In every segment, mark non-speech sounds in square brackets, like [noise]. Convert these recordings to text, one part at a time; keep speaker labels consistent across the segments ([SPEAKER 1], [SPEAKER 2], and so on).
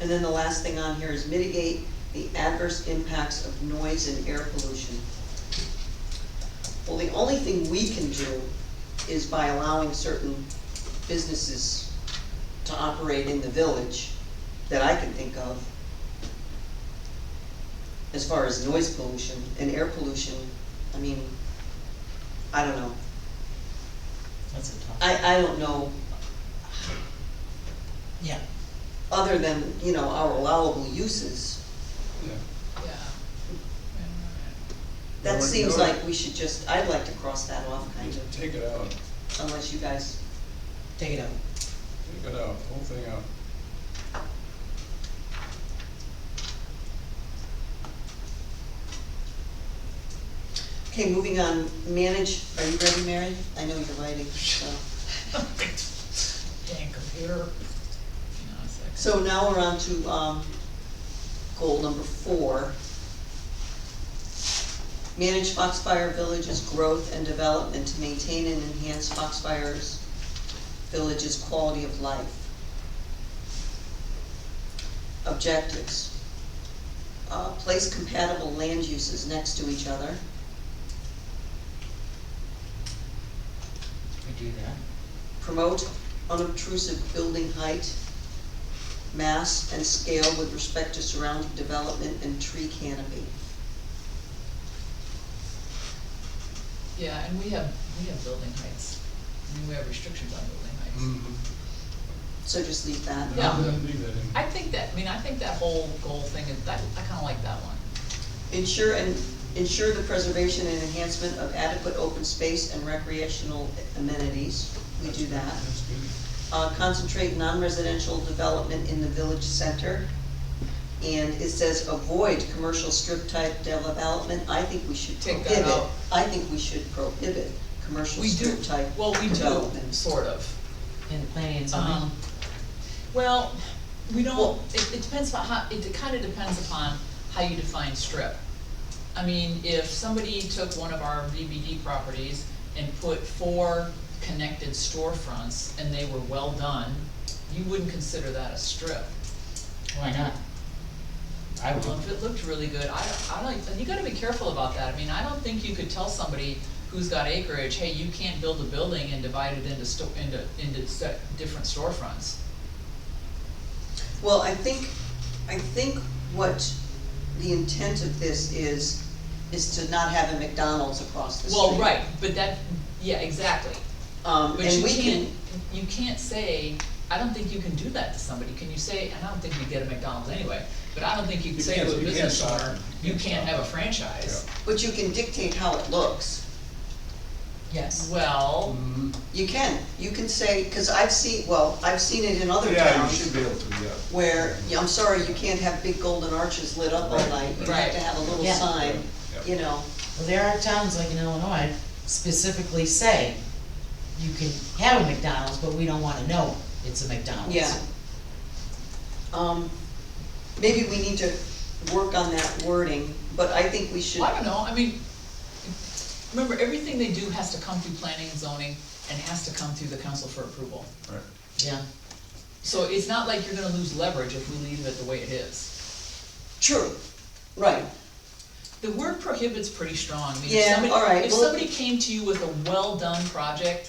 [SPEAKER 1] And then the last thing on here is mitigate the adverse impacts of noise and air pollution. Well, the only thing we can do is by allowing certain businesses to operate in the village that I can think of. As far as noise pollution and air pollution, I mean, I don't know.
[SPEAKER 2] That's a tough,
[SPEAKER 1] I, I don't know,
[SPEAKER 2] yeah.
[SPEAKER 1] other than, you know, our allowable uses.
[SPEAKER 3] Yeah.
[SPEAKER 4] Yeah.
[SPEAKER 1] That
[SPEAKER 3] Well,
[SPEAKER 1] seems
[SPEAKER 3] you're-
[SPEAKER 1] like we should just, I'd like to cross that off, kind of,
[SPEAKER 3] Take it out,
[SPEAKER 1] unless you guys,
[SPEAKER 2] Take it [laughs] out.
[SPEAKER 3] take it out, whole thing out.
[SPEAKER 1] okay, moving on, manage, are you ready, Mary? I know you're writing, so.
[SPEAKER 4] Dang computer. Hang on a second.
[SPEAKER 1] So now we're on to, um, goal number four. Manage Foxfire Village's growth and development to maintain and enhance Foxfire's village's quality of life. Objectives. Uh, place compatible land uses next to each other.
[SPEAKER 2] We do that.
[SPEAKER 1] Promote unobtrusive building height, mass, and scale with respect to surrounding development and tree canopy.
[SPEAKER 4] Yeah, and we have, we have building heights. I mean, we have restrictions on building
[SPEAKER 2] Mm.
[SPEAKER 4] heights.
[SPEAKER 1] Mm-hmm. So just leave that.
[SPEAKER 4] Yeah.
[SPEAKER 3] Leave that in.
[SPEAKER 4] I think that, I mean, I think that whole goal thing is, I, I kinda like that one.
[SPEAKER 1] Ensure and, ensure the preservation and enhancement of adequate open space and recreational amenities. We do that.
[SPEAKER 3] That's good.
[SPEAKER 1] Uh, concentrate non-residential development in the village center. And it says avoid commercial strip type development. I think we should
[SPEAKER 4] Take that
[SPEAKER 1] prohibit.
[SPEAKER 4] out.
[SPEAKER 1] I think we should prohibit commercial
[SPEAKER 4] We do,
[SPEAKER 1] strip type
[SPEAKER 4] well, we do,
[SPEAKER 1] development.
[SPEAKER 4] sort of.
[SPEAKER 2] In the planning and zoning,
[SPEAKER 4] Um, Well, we don't,
[SPEAKER 1] Well-
[SPEAKER 4] it, it depends upon how, it kinda depends upon how you define strip. I mean, if somebody took one of our VBD properties and put four connected storefronts and they were well done, you wouldn't consider that a strip.
[SPEAKER 2] why not? I would.
[SPEAKER 4] Well, if it looked really good, I, don't- I don't, you gotta be careful about that, I mean, I don't think you could tell somebody who's got acreage, hey, you can't build a building and divide it into sto- into, into se- different storefronts.
[SPEAKER 1] Well, I think, I think what the intent of this is, is to not have a McDonald's across the street.
[SPEAKER 4] Well, right, but that, yeah, exactly,
[SPEAKER 1] Um,
[SPEAKER 4] But
[SPEAKER 1] and
[SPEAKER 4] you
[SPEAKER 1] we can,
[SPEAKER 4] can't, you can't say, I don't think you can do that to somebody, can you say, and I don't think you get a McDonald's anyway, but I don't think you can
[SPEAKER 3] You
[SPEAKER 4] say
[SPEAKER 3] can't-
[SPEAKER 4] to a
[SPEAKER 3] you can't
[SPEAKER 4] business
[SPEAKER 3] stop
[SPEAKER 4] owner,
[SPEAKER 3] them. You
[SPEAKER 4] you
[SPEAKER 3] can't
[SPEAKER 4] can't
[SPEAKER 3] stop
[SPEAKER 4] have a
[SPEAKER 3] them."
[SPEAKER 4] franchise.
[SPEAKER 1] but you can dictate how it looks.
[SPEAKER 2] Yes.
[SPEAKER 4] Well,
[SPEAKER 3] Mhm.
[SPEAKER 1] You can, you can say, cause I've seen, well, I've seen it in other
[SPEAKER 3] Yeah, you
[SPEAKER 1] towns
[SPEAKER 3] should be able to, yeah.
[SPEAKER 1] where, yeah, I'm sorry, you can't have big golden arches lit up all
[SPEAKER 3] Right.
[SPEAKER 1] night. You have
[SPEAKER 4] Right.
[SPEAKER 1] to have a little
[SPEAKER 2] Yeah.
[SPEAKER 1] sign,
[SPEAKER 3] Yeah.
[SPEAKER 1] you know,
[SPEAKER 2] Well, there are towns like in Illinois specifically say, you can have a McDonald's, but we don't wanna know it's a McDonald's.
[SPEAKER 1] yeah. Um, maybe we need to work on that wording, but I think we should.
[SPEAKER 4] I don't know, I mean, remember, everything they do has to come through planning and zoning and has to come through the council for approval.
[SPEAKER 3] Right.
[SPEAKER 2] Yeah,
[SPEAKER 4] So it's not like you're gonna lose leverage if we leave it the way it is.
[SPEAKER 1] True, right.
[SPEAKER 4] The word prohibits pretty strong, I mean, if
[SPEAKER 1] Yeah,
[SPEAKER 4] somebody,
[SPEAKER 1] all right,
[SPEAKER 4] if
[SPEAKER 1] well-
[SPEAKER 4] somebody came to you with a well-done project,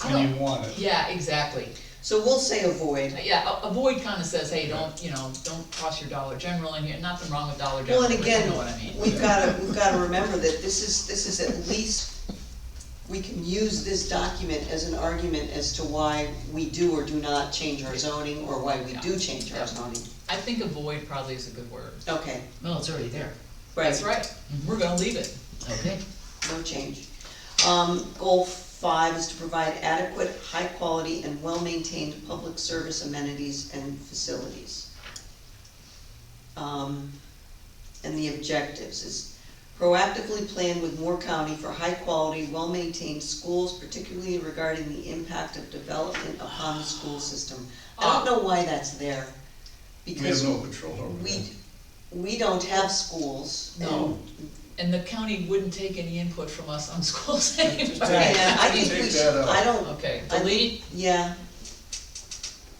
[SPEAKER 4] I don't.
[SPEAKER 3] And you want it.
[SPEAKER 4] Yeah, exactly.
[SPEAKER 1] So we'll say avoid.
[SPEAKER 4] Yeah, a- avoid kinda says, hey, don't, you know, don't cross your Dollar General, and you're, nothing wrong with Dollar
[SPEAKER 1] Well,
[SPEAKER 4] General,
[SPEAKER 1] and
[SPEAKER 4] but you
[SPEAKER 1] again,
[SPEAKER 4] know what I mean?
[SPEAKER 1] we've gotta, we've gotta remember that this is, this is at least, we can use this document as an argument as to why we do or do not change our zoning, or why we do change our
[SPEAKER 4] Yeah.
[SPEAKER 1] zoning.
[SPEAKER 4] I think avoid probably is a good word.
[SPEAKER 1] Okay,
[SPEAKER 2] well, it's already there,
[SPEAKER 4] That's
[SPEAKER 1] right,
[SPEAKER 4] right, we're gonna leave it.
[SPEAKER 2] okay.
[SPEAKER 1] no change. Um, goal five is to provide adequate, high-quality, and well-maintained public service amenities and facilities. Um, and the objectives is proactively plan with Moore County for high-quality, well-maintained schools, particularly regarding the impact of development upon the school system. I don't know why that's there,
[SPEAKER 3] We have
[SPEAKER 1] because
[SPEAKER 3] no control over
[SPEAKER 1] we,
[SPEAKER 3] that.
[SPEAKER 1] we don't have schools. and-
[SPEAKER 4] No. And the county wouldn't take any input from us on [laughs] schools anyway.
[SPEAKER 3] Right.
[SPEAKER 1] Yeah, I think we
[SPEAKER 3] Take
[SPEAKER 1] should,
[SPEAKER 3] that out.
[SPEAKER 1] I don't,
[SPEAKER 4] Okay,
[SPEAKER 1] I-
[SPEAKER 4] delete,
[SPEAKER 1] yeah,